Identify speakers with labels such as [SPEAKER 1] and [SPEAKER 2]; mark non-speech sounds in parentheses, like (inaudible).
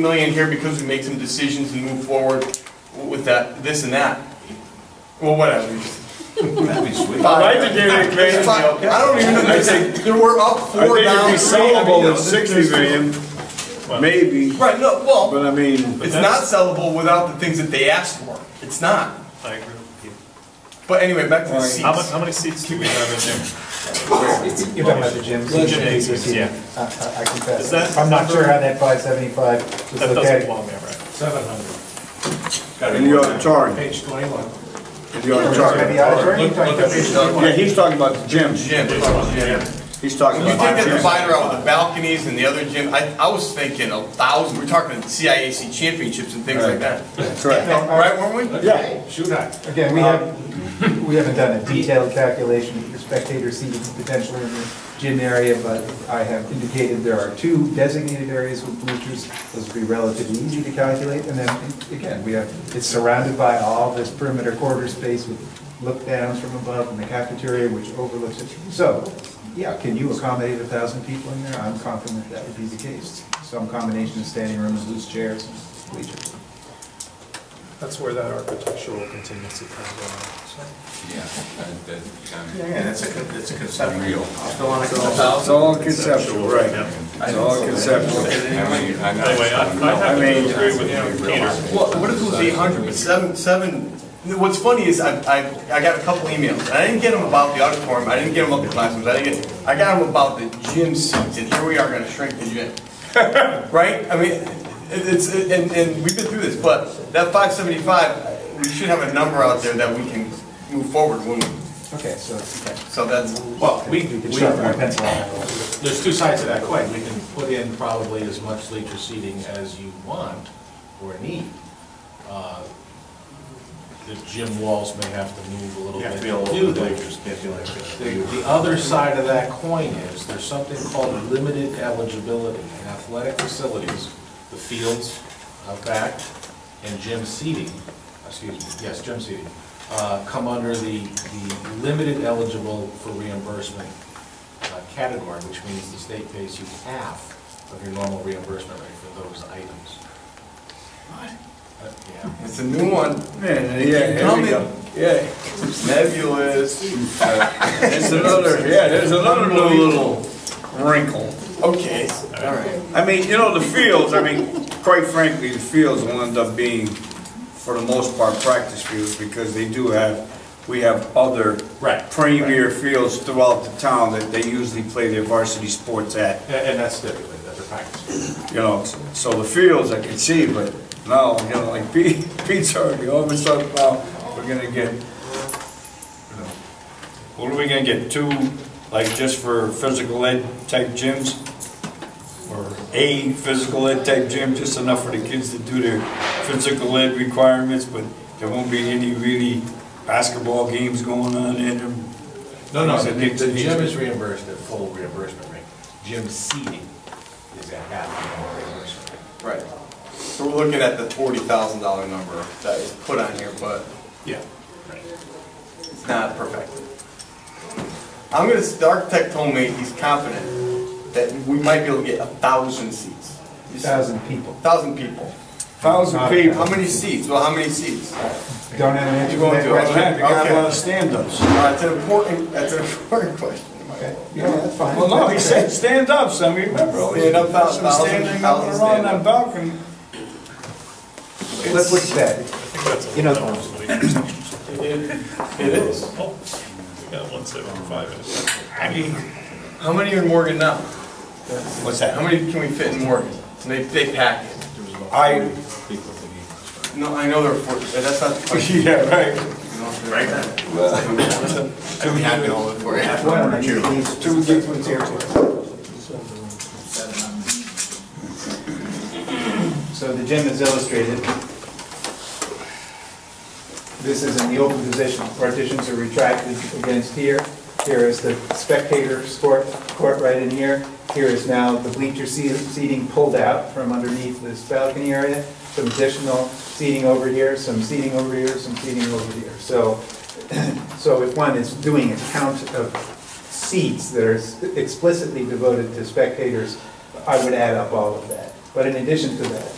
[SPEAKER 1] million here because we made some decisions and moved forward with that, this and that. Well, whatever.
[SPEAKER 2] That'd be sweet.
[SPEAKER 1] If I had to give it a grade, it'd
[SPEAKER 2] It's
[SPEAKER 1] be
[SPEAKER 2] fine.
[SPEAKER 1] okay.
[SPEAKER 2] I don't even know, I say, there were up
[SPEAKER 3] I
[SPEAKER 2] four
[SPEAKER 3] think
[SPEAKER 2] down.
[SPEAKER 3] it'd be
[SPEAKER 2] three, I mean, you
[SPEAKER 3] sellable
[SPEAKER 2] know,
[SPEAKER 3] at
[SPEAKER 2] this-
[SPEAKER 3] sixty million, maybe,
[SPEAKER 1] Right, no, well,
[SPEAKER 3] but I mean,
[SPEAKER 1] it's not sellable without the things that they asked for. It's not.
[SPEAKER 4] I agree with you.
[SPEAKER 1] But anyway, back to the
[SPEAKER 4] How many,
[SPEAKER 1] seats.
[SPEAKER 4] how many seats do we have in there?
[SPEAKER 5] You're talking about the gyms?
[SPEAKER 4] Gym acres, yeah.
[SPEAKER 5] I- I I
[SPEAKER 4] Is
[SPEAKER 5] confess,
[SPEAKER 4] that-
[SPEAKER 5] I'm not sure how that five seventy-five was
[SPEAKER 4] That doesn't
[SPEAKER 5] located.
[SPEAKER 4] belong there, right?
[SPEAKER 3] and you ought to charge. Page twenty-one. You ought to charge.
[SPEAKER 5] Maybe out of turn, you're talking about-
[SPEAKER 3] Yeah, he's talking about the gyms.
[SPEAKER 1] Jim, Jim.
[SPEAKER 3] He's talking
[SPEAKER 1] You
[SPEAKER 3] about
[SPEAKER 1] take that
[SPEAKER 3] the gyms.
[SPEAKER 1] divider out with the balconies and the other gym, I, I was thinking a thousand, we're talking CIAC championships and things like that.
[SPEAKER 3] Correct.
[SPEAKER 1] Right, weren't we?
[SPEAKER 3] Yeah,
[SPEAKER 5] Again, we have, (laughs) we haven't done a detailed calculation for spectator seating potentially in the gym area, but I have indicated there are two designated areas with bleachers. Those would be relatively easy to calculate, and then, again, we have, it's surrounded by all this perimeter quarter space with look downs from above and the cafeteria which overlooks it. So, yeah, can you accommodate a thousand people in there? I'm confident that would be the case. Some combination of standing room and loose chairs and bleachers.
[SPEAKER 4] That's where that architectural contingency comes
[SPEAKER 2] Yeah, that- that kind of-
[SPEAKER 5] yeah,
[SPEAKER 2] that's a, con- that's a conceptual. Real.
[SPEAKER 3] it's all conceptual, right. It's all conceptual.
[SPEAKER 2] I mean, I
[SPEAKER 4] in. Anyway, I, I have
[SPEAKER 3] I mean-
[SPEAKER 4] to agree with Peter.
[SPEAKER 1] Well, what if it was eight hundred, but seven, seven, what's funny is I, I, I got a couple emails, and I didn't get them about the auditorium, I didn't get them about the classrooms, I didn't get, I got them about the gym seats, and here we are gonna shrink the gym. Right? I mean, it- it's, it- and, and we've been through this, but that five seventy-five, we should have a number out there that we can move forward when, we-
[SPEAKER 5] Okay, so
[SPEAKER 1] so that's,
[SPEAKER 6] Well, we,
[SPEAKER 5] we could
[SPEAKER 6] we,
[SPEAKER 5] sharpen our pencil on that.
[SPEAKER 6] there's two sides to that coin. We can put in probably as much bleacher seating as you want or need. Uh, The gym walls may have to move a little bit to do that. The, the other side of that coin is, there's something called limited eligibility in athletic facilities, the fields out back, and gym seating, excuse me, yes, gym seating, uh, come under the, the limited eligible for reimbursement uh, category, which means the state pays you half of your normal reimbursement rate for those items. What? Yeah.
[SPEAKER 1] it's a new one,
[SPEAKER 3] Yeah, yeah, here we go. Yeah,
[SPEAKER 1] nebulous,
[SPEAKER 3] it's another, yeah, there's another little wrinkle.
[SPEAKER 1] okay, all right.
[SPEAKER 3] I mean, you know, the fields, I mean, quite frankly, the fields will end up being, for the most part, practice fields because they do have, we have other
[SPEAKER 6] Right.
[SPEAKER 3] premier fields throughout the town that they usually play their varsity sports at,
[SPEAKER 6] And and that's stipulated, that's a practice.
[SPEAKER 3] you know, so the fields I can see, but now, you know, like (laughs) Pete, Pete's already, all of a sudden now, we're gonna get, you know, what are we gonna get, two, like just for physical ed type gyms? Or a physical ed type gym, just enough for the kids to do their physical ed requirements, but there won't be any really basketball games going on in them.
[SPEAKER 6] No, no,
[SPEAKER 3] It's
[SPEAKER 6] the
[SPEAKER 3] a- it's a-
[SPEAKER 6] the gym is reimbursed at full reimbursement rate. Gym seating is at half of normal reimbursement rate.
[SPEAKER 1] Right. So we're looking at the forty thousand dollar number that is put on here, but
[SPEAKER 6] Yeah. Right.
[SPEAKER 1] it's not perfected. I'm gonna, the architect told me he's confident that we might be able to get a thousand seats.
[SPEAKER 5] thousand people.
[SPEAKER 1] Thousand people.
[SPEAKER 3] Thousand people.
[SPEAKER 1] How many seats? Well, how many seats?
[SPEAKER 5] Don't have an answer
[SPEAKER 1] You
[SPEAKER 5] for
[SPEAKER 1] going
[SPEAKER 5] that
[SPEAKER 1] to,
[SPEAKER 5] question.
[SPEAKER 3] They got a lot of
[SPEAKER 1] okay.
[SPEAKER 3] stand-ups.
[SPEAKER 1] That's Uh, an important, that's an important (laughs) question.
[SPEAKER 5] Yeah, that's fine.
[SPEAKER 3] Well, no, he said stand ups, I mean, remember, all these
[SPEAKER 1] Stand up,
[SPEAKER 3] guys were
[SPEAKER 1] thousand,
[SPEAKER 3] standing up and
[SPEAKER 1] thousand
[SPEAKER 3] around
[SPEAKER 1] stand
[SPEAKER 3] that
[SPEAKER 1] up.
[SPEAKER 3] balcony.
[SPEAKER 5] Let's look at that.
[SPEAKER 4] I think that's a
[SPEAKER 5] You know-
[SPEAKER 4] little overstatement.
[SPEAKER 1] It is.
[SPEAKER 4] Oh, We got one seventy-five in it.
[SPEAKER 1] I mean, how many are in Morgan now?
[SPEAKER 3] What's
[SPEAKER 1] How many can we fit in Morgan? And they, they pack it.
[SPEAKER 3] I,
[SPEAKER 1] No, I know there are forty, that's
[SPEAKER 3] (laughs)
[SPEAKER 1] not the question.
[SPEAKER 3] yeah, right.
[SPEAKER 1] Right. I'd be happy to hold it for you.
[SPEAKER 5] One of these
[SPEAKER 3] Two different
[SPEAKER 5] So the gym is illustrated. This is in the open position, partitions are retracted against here. Here is the spectator sport court right in here. Here is now the bleacher se- seating pulled out from underneath this balcony area, some additional seating over here, some seating over here, some seating over here. So, so if one is doing a count of seats that are explicitly devoted to spectators, I would add up all of that. But in addition to that,